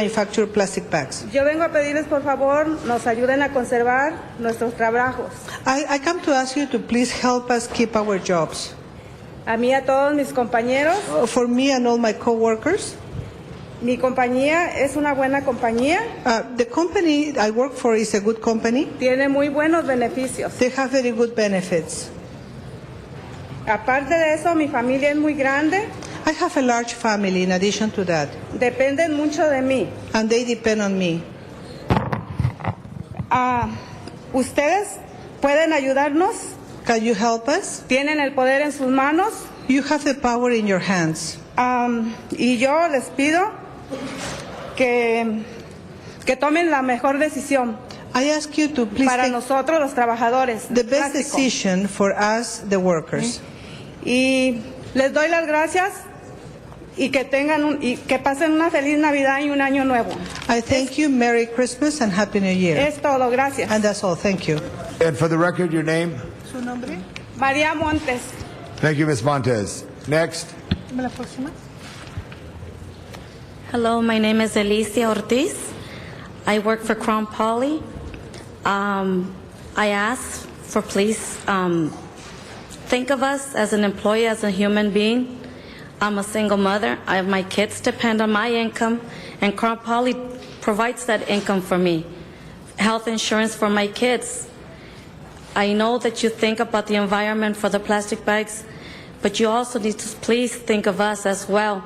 manufacture plastic bags. Yo vengo a pedirles por favor nos ayuden a conservar nuestros trabajos. I, I come to ask you to please help us keep our jobs. A mí, a todos mis compañeros, Uh, For me and all my coworkers, mi compañía es una buena compañía, uh, the company I work for is a good company. tiene muy buenos beneficios. They have very good benefits. Aparte de eso, mi familia es muy grande, I have a large family in addition to that, dependen mucho de mí. and they depend on me. Ah, ¿Ustedes pueden ayudarnos? Can you help us? Tienen el poder en sus manos You have the power in your hands. Am, y yo les pido que, que tomen la mejor decisión I ask you to please para take nosotros los trabajadores. the best Plástico. decision for us, the workers. Y les doy las gracias y que tengan un- y que pasen una feliz Navidad y un año nuevo. I thank you. Merry Christmas and Happy New Year. Es todo, gracias. And that's all. Thank you. And for the record, your name? María Montes. Thank you, Ms. Montez. Next. Hello, my name is Alicia Ortiz. I work for Crown Poly. Um, I ask for please um, think of us as an employee, as a human being. I'm a single mother. I have my kids depend on my income, and Crown Poly provides that income for me. Health insurance for my kids. I know that you think about the environment for the plastic bags, but you also need to please think of us as well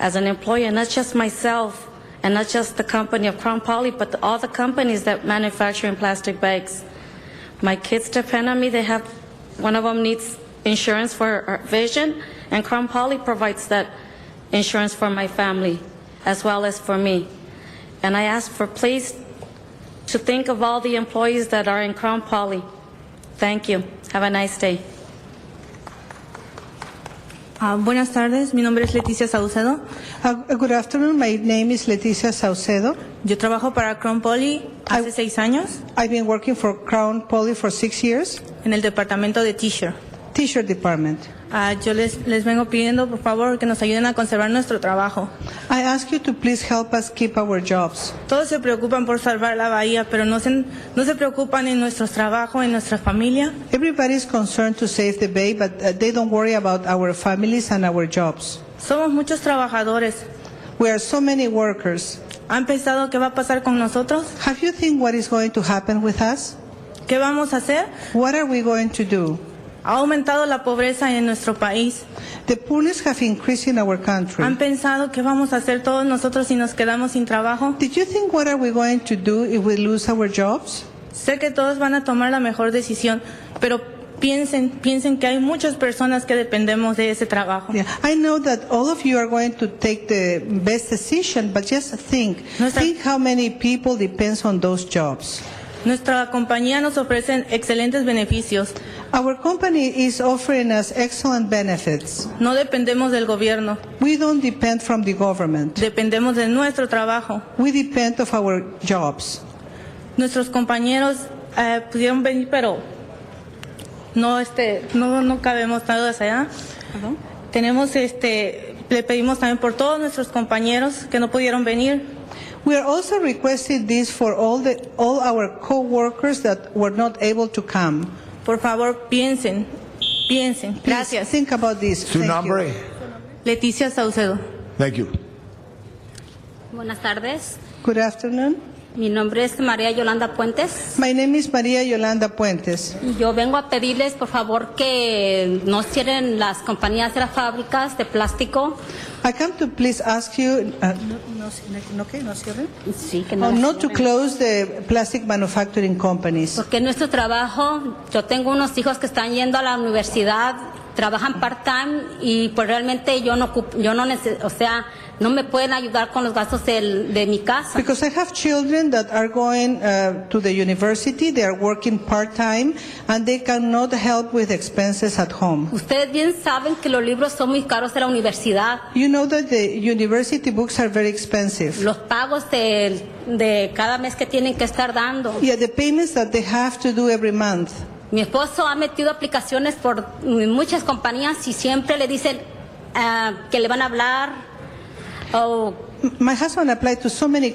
as an employer, not just myself and not just the company of Crown Poly, but all the companies that manufacture in plastic bags. My kids depend on me. They have, one of them needs insurance for her vision, and Crown Poly provides that insurance for my family as well as for me. And I ask for please to think of all the employees that are in Crown Poly. Thank you. Have a nice day. Ah, buenas tardes, mi nombre es Leticia Saucedo. Uh, good afternoon. My name is Leticia Saucedo. Yo trabajo para Crown Poly hace seis años I've been working for Crown Poly for six years, en el departamento de T-shirt. T-shirt department. Ah, yo les, les vengo pidiendo, por favor, que nos ayuden a conservar nuestro trabajo. I ask you to please help us keep our jobs. Todos se preocupan por salvar la bahía, pero no se, no se preocupan en nuestros trabajos, en nuestra familia. Everybody is concerned to save the bay, but uh, they don't worry about our families and our jobs. Somos muchos trabajadores. We are so many workers. ¿Han pensado qué va a pasar con nosotros? Have you think what is going to happen with us? ¿Qué vamos a hacer? What are we going to do? Ha aumentado la pobreza en nuestro país. The poorness have increased in our country. ¿Han pensado qué vamos a hacer todos nosotros si nos quedamos sin trabajo? Did you think what are we going to do if we lose our jobs? Sé que todos van a tomar la mejor decisión, pero piensen, piensen que hay muchas personas que dependemos de ese trabajo. Yeah, I know that all of you are going to take the best decision, but just think, No está- think how many people depends on those jobs. Nuestra compañía nos ofrece excelentes beneficios. Our company is offering us excellent benefits. No dependemos del gobierno, We don't depend from the government. dependemos de nuestro trabajo. We depend of our jobs. Nuestros compañeros eh, pudieron venir, pero no, este, no, no cabemos todos allá. Tenemos, este, le pedimos también por todos nuestros compañeros que no pudieron venir. We are also requesting this for all the all our co-workers that were not able to come. Por favor, piensen, piensen. Please Gracias. Think about this. Su Thank you. nombre? Leticia Saucedo. Thank you. Buenas tardes. Good afternoon. Mi nombre es María Yolanda Puentes My name is Maria Yolanda Puentes. y yo vengo a pedirles, por favor, que no cierren las compañías de las fábricas de plástico. I come to please ask you uh, Sí, que oh, no. not to close the plastic manufacturing companies. Porque es nuestro trabajo, yo tengo unos hijos que están yendo a la universidad, trabajan part-time y pues realmente yo no, ocup- yo no nece- o sea, no me pueden ayudar con los gastos del- de mi casa. Because I have children that are going uh, to the university, they are working part-time, and they cannot help with expenses at home. Ustedes bien saben que los libros son muy caros de la universidad. You know that the university books are very expensive. Los pagos de, de cada mes que tienen que estar dando. Yeah, the payments that they have to do every month. Mi esposo ha metido aplicaciones por muchas compañías y siempre le dicen ah, que le van a hablar o my husband applied to so many